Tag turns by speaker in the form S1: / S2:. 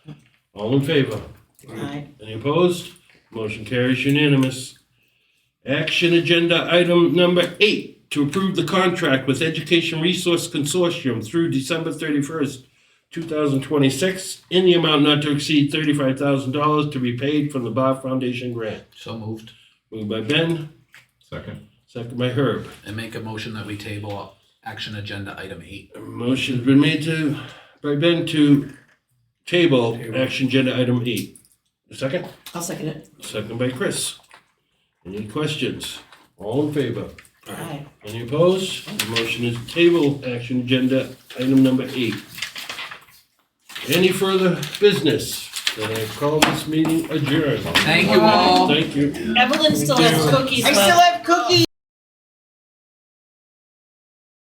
S1: All in favor?
S2: Aye.
S1: Any opposed? Motion carries unanimous. Action agenda item number eight, to approve the contract with Education Resource Consortium through December thirty-first, two thousand twenty-six, in the amount not to exceed thirty-five thousand dollars to be paid from the Bob Foundation grant.
S3: So moved.
S1: Moved by Ben,
S4: Second.
S1: second by Herb.
S3: And make a motion that we table action agenda item eight.
S1: Motion's been made to, by Ben to table action agenda item eight. A Second?
S2: I'll second it.
S1: Second by Chris. Any questions? All in favor?
S2: Aye.
S1: Any opposed? The motion is table action agenda item number eight. Any further business? Then I call this meeting adjourned.
S3: Thank you all.
S1: Thank you.
S2: Evelyn still has cookies
S5: I
S2: left.
S5: still have cookies.